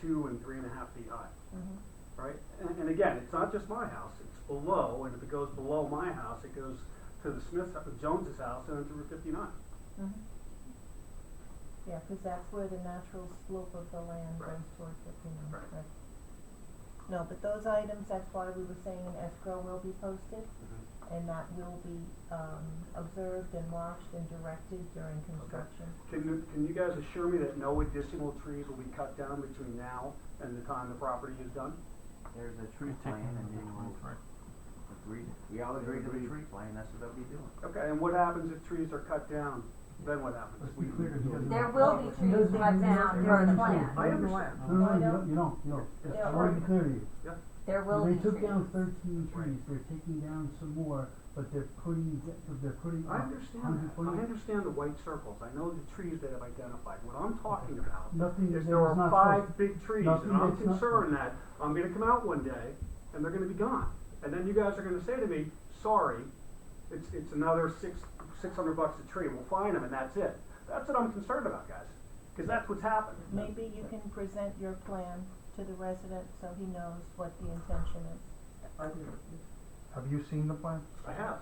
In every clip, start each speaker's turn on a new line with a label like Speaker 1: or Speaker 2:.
Speaker 1: two and three and a half feet high,
Speaker 2: Mm-hmm.
Speaker 1: right? And, and again, it's not just my house, it's below, and if it goes below my house, it goes to the Smith, Jones's house and then to Route fifty-nine.
Speaker 2: Mm-hmm. Yeah, cause that's where the natural slope of the land
Speaker 1: Right.
Speaker 2: goes toward fifty-nine,
Speaker 1: Right.
Speaker 2: correct? No, but those items, that's why we were saying an escrow will be posted, and that will be, um, observed and watched and directed during construction.
Speaker 1: Can you, can you guys assure me that no additional trees will be cut down between now and the time the property is done?
Speaker 3: There's a tree plan and then we'll agree, we all agree to the tree plan, that's what they'll be doing.
Speaker 1: Okay, and what happens if trees are cut down, then what happens?
Speaker 4: Let's be clear, he doesn't.
Speaker 5: There will be trees cut down per the plan.
Speaker 1: I understand.
Speaker 4: No,
Speaker 5: Uh,
Speaker 4: no, you don't, you don't, you don't.
Speaker 2: Yeah.
Speaker 4: I want to be clear to you.
Speaker 5: There will be
Speaker 4: They took
Speaker 5: trees.
Speaker 4: down thirteen
Speaker 1: Right.
Speaker 4: trees, they're taking down some more, but they're putting, de- they're putting
Speaker 1: I
Speaker 4: up
Speaker 1: understand that.
Speaker 4: 120
Speaker 1: I understand the white circles. I know the trees that I've identified. What I'm talking about
Speaker 4: Nothing,
Speaker 1: is
Speaker 4: that
Speaker 1: there
Speaker 4: was
Speaker 1: are
Speaker 4: not
Speaker 1: five
Speaker 4: posted.
Speaker 1: big trees
Speaker 4: Nothing
Speaker 1: and I'm
Speaker 4: that's not-
Speaker 1: concerned that I'm gonna come out one day and they're gonna be gone. And then you guys are gonna say to me, sorry, it's, it's another six, six hundred bucks a tree. We'll find them and that's it. That's what I'm concerned about, guys. Cause that's what's happened.
Speaker 2: Maybe you can present your plan to the resident so he knows what the intention is.
Speaker 1: I,
Speaker 6: Have you seen the plan?
Speaker 1: I have.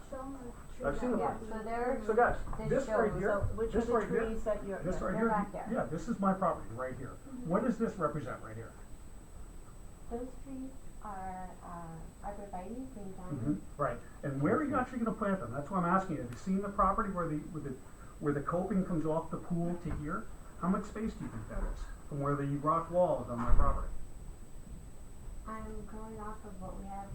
Speaker 7: I've seen
Speaker 1: them.
Speaker 7: it.
Speaker 5: Yeah, so there,
Speaker 1: So guys,
Speaker 5: This
Speaker 1: this right
Speaker 5: shows uh,
Speaker 1: here,
Speaker 2: So which
Speaker 6: This
Speaker 2: of the
Speaker 6: right here-
Speaker 2: trees that you're,
Speaker 6: This right
Speaker 5: They're
Speaker 6: here?
Speaker 5: back there. Mm-hmm.
Speaker 6: Yeah, this is my property, right here. What does this represent right here?
Speaker 7: Those trees are, uh, arborvitae, green
Speaker 2: Mm-hmm.
Speaker 1: Mhm.
Speaker 7: diamond.
Speaker 6: Right, and where are you actually gonna plant them? That's why I'm asking you. Have you seen the property where the, where the, where the coping comes off the pool to here? How much space do you think that is from where the rock wall is on my property?
Speaker 7: I'm going off of what we have,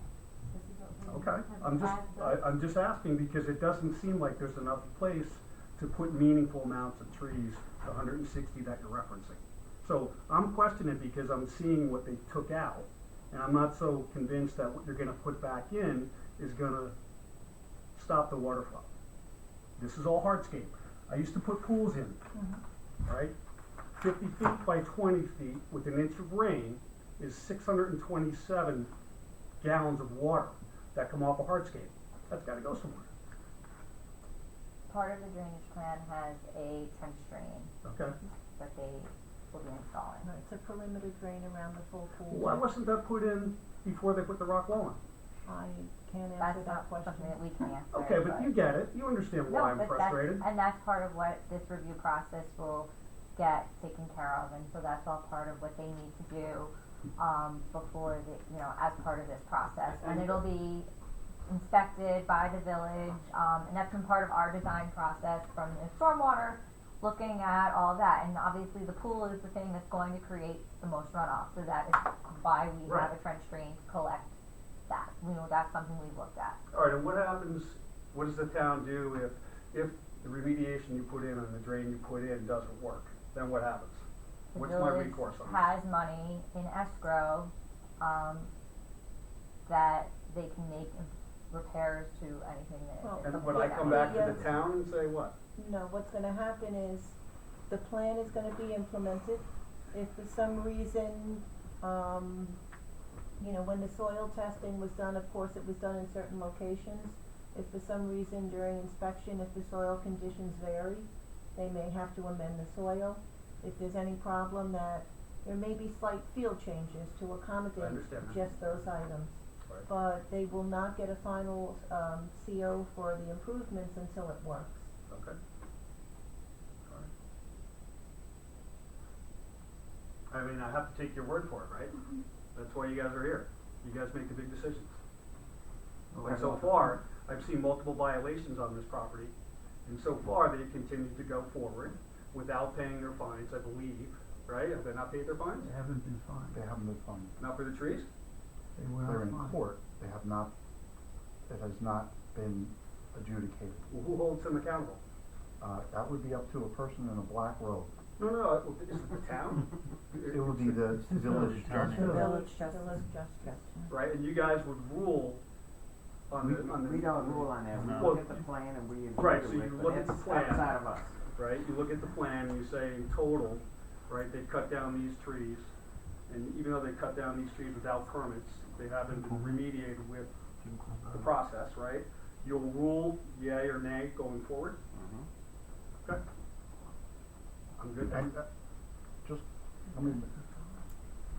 Speaker 7: this is what we have.
Speaker 6: Okay, I'm just,
Speaker 7: as
Speaker 6: I,
Speaker 2: uh,
Speaker 7: of-
Speaker 6: I'm just asking because it doesn't seem like there's enough place to put meaningful amounts of trees, the hundred and sixty that you're referencing. So I'm questioning because I'm seeing what they took out, and I'm not so convinced that what you're gonna put back in is gonna stop the water flow. This is all hardscape. I used to put pools in,
Speaker 2: Mm-hmm.
Speaker 6: right? Fifty feet by twenty feet with an inch of rain is six hundred and twenty-seven gallons of water that come off a hardscape. That's gotta go somewhere,
Speaker 5: part of the drainage plan has a trench drain
Speaker 6: okay?
Speaker 5: that they will be installing.
Speaker 2: No, it's a perimeter drain around the full pool.
Speaker 6: Why wasn't that put in before they put the rock wall in?
Speaker 2: I can't answer
Speaker 5: That's
Speaker 2: that
Speaker 5: not
Speaker 2: question.
Speaker 5: something that we can answer.
Speaker 6: Okay, but you get it, you understand
Speaker 5: No,
Speaker 6: why I'm
Speaker 5: but that's-
Speaker 6: frustrated.
Speaker 5: And that's part of what this review process will get taken care of, and so that's all part of what they need to do, um, before the, you know, as part of this process. And it'll be inspected by the village, um, and that's been part of our design process from the stormwater, looking at all that, and obviously the pool is the thing that's going to create the most runoff, so that is why we have a
Speaker 6: Right.
Speaker 5: trench drain to collect that, you know, that's something we've looked at.
Speaker 1: All right, and what happens, what does the town do if, if the remediation you put in and the drain you put in doesn't work? Then what happens?
Speaker 5: The
Speaker 1: What's my
Speaker 5: village
Speaker 1: recourse on that?
Speaker 5: Has money in escrow, um, that they can make im- repairs to anything
Speaker 2: Well,
Speaker 5: that.
Speaker 1: And when I come back to the
Speaker 2: Yes.
Speaker 1: town and say what?
Speaker 2: No, what's gonna happen is, the plan is gonna be implemented. If for some reason, um, you know, when the soil testing was done, of course, it was done in certain locations. If for some reason during inspection, if the soil conditions vary, they may have to amend the soil. If there's any problem that, there may be slight field changes to accommodate
Speaker 1: understand.
Speaker 2: just those items.
Speaker 1: Right.
Speaker 2: But they will not get a final, um, CO for the improvements until it works.
Speaker 1: Okay. All right. I mean, I have to take your word for it, right? That's why you guys are here. You guys make the big decisions. And so far, I've seen multiple violations on this property, and so far, they've continued to go forward without paying their fines, I believe, right? Have they not paid their fines?
Speaker 4: They haven't been fined,
Speaker 8: They haven't been fined.
Speaker 1: Not for the trees?
Speaker 4: they were
Speaker 8: They're
Speaker 4: not
Speaker 8: in
Speaker 4: fined.
Speaker 8: court. They have not, it has not been adjudicated.
Speaker 1: Well, who holds them accountable?
Speaker 8: Uh, that would be up to a person in a black robe.
Speaker 1: No, no, is it the town?
Speaker 8: It would be the
Speaker 4: It's the
Speaker 8: village
Speaker 4: village
Speaker 8: attorney.
Speaker 4: council.
Speaker 2: Village
Speaker 5: Village
Speaker 2: Justice.
Speaker 5: Justice.
Speaker 1: Right, and you guys would rule on
Speaker 3: We,
Speaker 1: the, on the.
Speaker 3: we don't rule on that, we
Speaker 6: No.
Speaker 3: look at the plan and we agree
Speaker 1: Right,
Speaker 3: to
Speaker 1: so you
Speaker 3: it,
Speaker 1: look
Speaker 3: but
Speaker 1: at the
Speaker 3: it's
Speaker 1: plan.
Speaker 3: outside of us.
Speaker 1: Right, you look at the plan, and you say in total, right, they've cut down these trees, and even though they cut down these trees without permits, they haven't been remediated with the process, right? You'll rule yay or nay going forward?
Speaker 3: Mhm.
Speaker 1: Okay. I'm good.
Speaker 8: And- uh, Just, I mean,